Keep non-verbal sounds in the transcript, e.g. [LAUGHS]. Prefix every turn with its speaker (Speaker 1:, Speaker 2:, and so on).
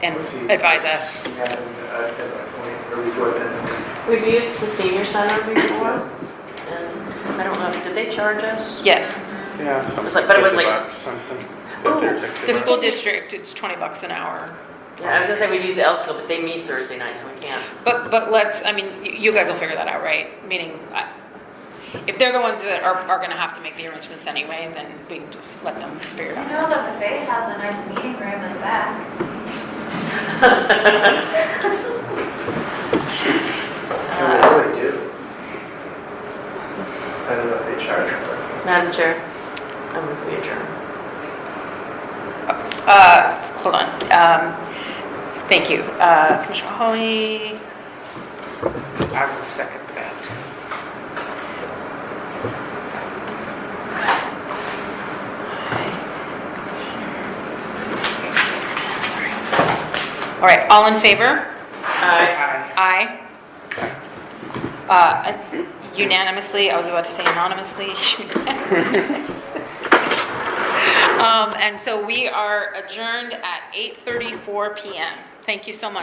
Speaker 1: and
Speaker 2: Let's see.
Speaker 1: advise us.
Speaker 2: It's happened, uh, at that point, or before then.
Speaker 3: We've used the senior center before, and I don't know, if did they charge us?
Speaker 1: Yes,
Speaker 4: Yeah.
Speaker 3: It was like- but it was like-
Speaker 4: $50 Something. If
Speaker 3: Ooh,
Speaker 4: there's extra
Speaker 1: the
Speaker 4: money.
Speaker 1: school district, it's twenty bucks an hour.
Speaker 3: Yeah, I was gonna say we use the Elks Club, but they meet Thursday night, so we can't. [LAUGHS]
Speaker 1: But, but let's, I mean, you you guys will figure that out, right? Meaning, I- if they're the ones that are, are gonna have to make the arrangements anyway, then we can just let them figure it
Speaker 5: You know, the
Speaker 1: out.
Speaker 5: buffet has a nice meeting room in the back.
Speaker 3: Uh,
Speaker 2: I really do. I don't know if they charge for
Speaker 3: Madam Chair, I'm with you, adjourn.
Speaker 1: Uh, hold on, um, thank you. Uh, Commissioner Holly? I will second that. All right, all in favor? Aye. Uh, Unanimously, I was about to say anonymously. [LAUGHS] Um, And so we are adjourned at 8:34 PM. Thank you so much.